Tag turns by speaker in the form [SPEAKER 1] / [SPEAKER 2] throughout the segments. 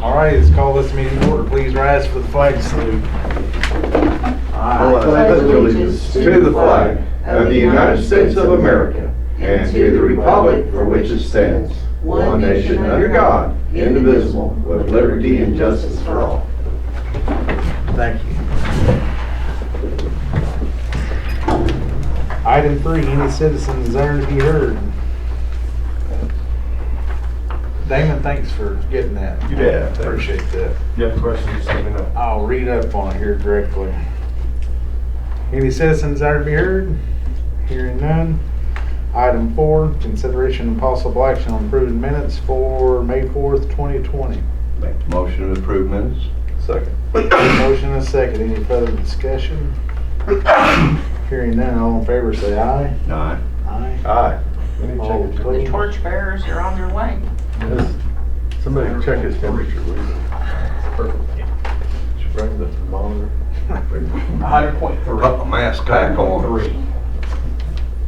[SPEAKER 1] All right, let's call this meeting to order. Please rise for the flag salute.
[SPEAKER 2] I pledge allegiance to the flag of the United States of America and to the republic for which it stands, one nation under God, indivisible, with liberty and justice for all.
[SPEAKER 1] Thank you. Item three, any citizen desiring to be heard? Damon, thanks for getting that.
[SPEAKER 2] You bet.
[SPEAKER 1] Appreciate that.
[SPEAKER 2] If you have questions, let me know.
[SPEAKER 1] I'll read up on it here directly. Any citizen desire to be heard? Hearing none. Item four, consideration and possible action on approving minutes for May fourth, twenty twenty.
[SPEAKER 2] Make the motion to approve minutes. Second.
[SPEAKER 1] Motion and a second. Any further discussion? Hearing none, all in favor say aye.
[SPEAKER 2] Aye.
[SPEAKER 1] Aye.
[SPEAKER 2] Aye.
[SPEAKER 3] Oh.
[SPEAKER 1] All
[SPEAKER 4] The
[SPEAKER 1] opposed?
[SPEAKER 4] torchbearers are on their way.
[SPEAKER 2] Somebody check his temperature, will you? Should bring the thermometer.
[SPEAKER 5] Hundred point three.
[SPEAKER 2] Put my mask back on.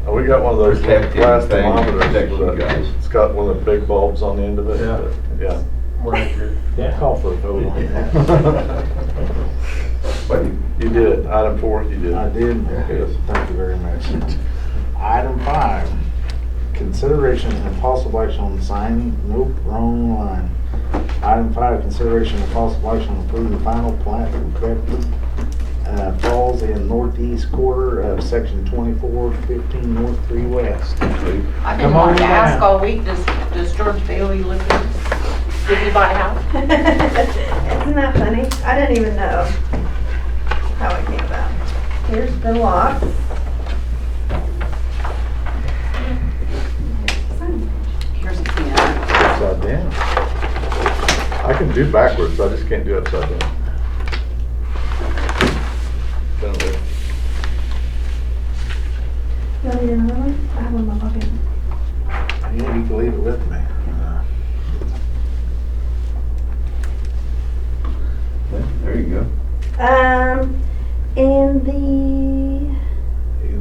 [SPEAKER 3] Oh, We got one of those
[SPEAKER 2] Protective
[SPEAKER 3] glass
[SPEAKER 2] thing,
[SPEAKER 3] thermometers.
[SPEAKER 2] protecting
[SPEAKER 3] with
[SPEAKER 2] guys.
[SPEAKER 3] a- It's got one of the big bulbs on the end of it.
[SPEAKER 5] Yeah.
[SPEAKER 3] but, Yeah.
[SPEAKER 1] Call for a vote on that.
[SPEAKER 3] But you- You did, item four, you did.
[SPEAKER 1] I did.
[SPEAKER 3] Yes.
[SPEAKER 1] Thank you very much. Item five, consideration and possible action on signing, nope, wrong line. Item five, consideration and possible action on approving the final plat for Crabtree, uh Falls in northeast quarter of section twenty-four fifteen North Three West.
[SPEAKER 4] I've
[SPEAKER 1] Come
[SPEAKER 4] been wanting to
[SPEAKER 1] on
[SPEAKER 4] ask
[SPEAKER 1] down.
[SPEAKER 4] all week, does, does George Bailey live in, did he buy a house?
[SPEAKER 6] Isn't that funny? I didn't even know how it came about. Here's the lot.
[SPEAKER 4] Here's a pen.
[SPEAKER 3] Upside down. I can do backwards, I just can't do upside down. Down there.
[SPEAKER 6] You want to get another one? I have one in my pocket.
[SPEAKER 1] Yeah, you can leave it with me. Uh,
[SPEAKER 2] There you go.
[SPEAKER 6] Um, and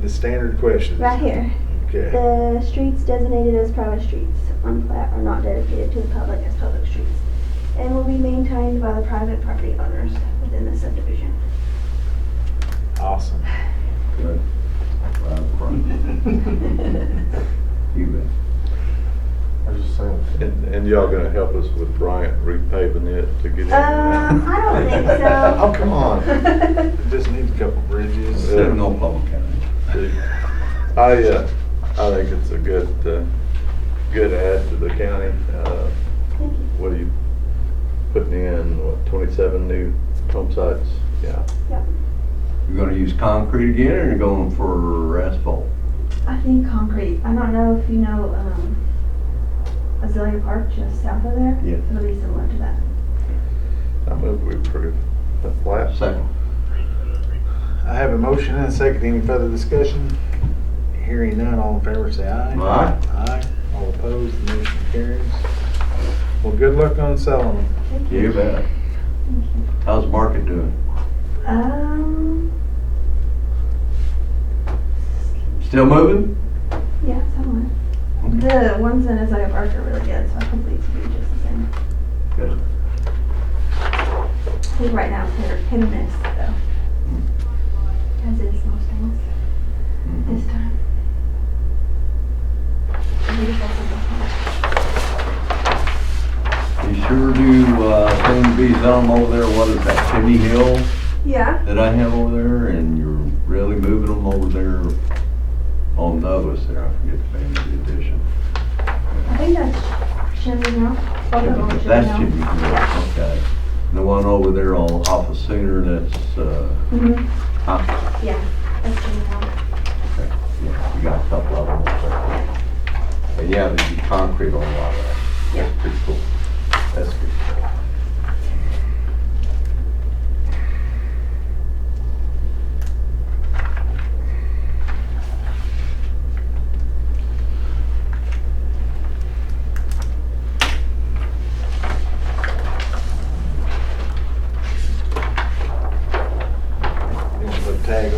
[SPEAKER 1] The standard questions.
[SPEAKER 6] the, right here,
[SPEAKER 1] Okay.
[SPEAKER 6] the streets designated as private streets on plat are not dedicated to the public as public streets and will be maintained by the private property owners within the subdivision.
[SPEAKER 1] Awesome.
[SPEAKER 2] Good. Right up front. You bet.
[SPEAKER 3] And, and y'all gonna help us with Bryant repaving it to get in?
[SPEAKER 6] Um, I don't think so.
[SPEAKER 3] Oh, come on.
[SPEAKER 1] It just needs a couple bridges.
[SPEAKER 3] Yeah.
[SPEAKER 2] Seven Old Public County.
[SPEAKER 3] I, uh, I think it's a good, uh, good add to the county. Uh,
[SPEAKER 6] Thank you.
[SPEAKER 3] What are you putting in, what, 27 new home sites? Yeah.
[SPEAKER 2] You're gonna use concrete again, or you're going for asphalt?
[SPEAKER 6] I think concrete. I don't know if you know um, Azalea Park just south of there.
[SPEAKER 2] Yeah.
[SPEAKER 6] It'll be similar to that.
[SPEAKER 3] I move we approve the last.
[SPEAKER 2] Second.
[SPEAKER 1] I have a motion and a second. Any further discussion? Hearing none, all in favor say aye.
[SPEAKER 2] Aye.
[SPEAKER 1] Aye. All opposed, the motion carries. Well, good luck on selling them.
[SPEAKER 6] Thank you.
[SPEAKER 2] You bet. How's the market doing?
[SPEAKER 6] Um,
[SPEAKER 2] Still moving?
[SPEAKER 6] yeah, somewhat. The ones in Azalea Park are really good, so hopefully it's gonna be just the same.
[SPEAKER 2] Good.
[SPEAKER 6] I think right now they're hit or miss, though.
[SPEAKER 2] Hmm.
[SPEAKER 6] As is most things
[SPEAKER 2] Mhm.
[SPEAKER 6] this time. I think that's a
[SPEAKER 2] You sure do, uh, seem to be selling over there, what is that, Chimney Hill
[SPEAKER 6] good one. Yeah.
[SPEAKER 2] that I have over there, and you're really moving them over there on Douglas there, I forget the name of the addition.
[SPEAKER 6] I think that's Chimney Hill. Both of them are
[SPEAKER 2] That's
[SPEAKER 6] Hill.
[SPEAKER 2] Chimney Hill, okay. And the one over there on, off of Sooner, that's, uh,
[SPEAKER 6] Mhm.
[SPEAKER 2] huh?
[SPEAKER 6] Yeah, that's Chimney Hill.
[SPEAKER 2] Okay, yeah, you got a couple of them. over there. But yeah, there'd be concrete on a lot of that. That's pretty cool. That's good.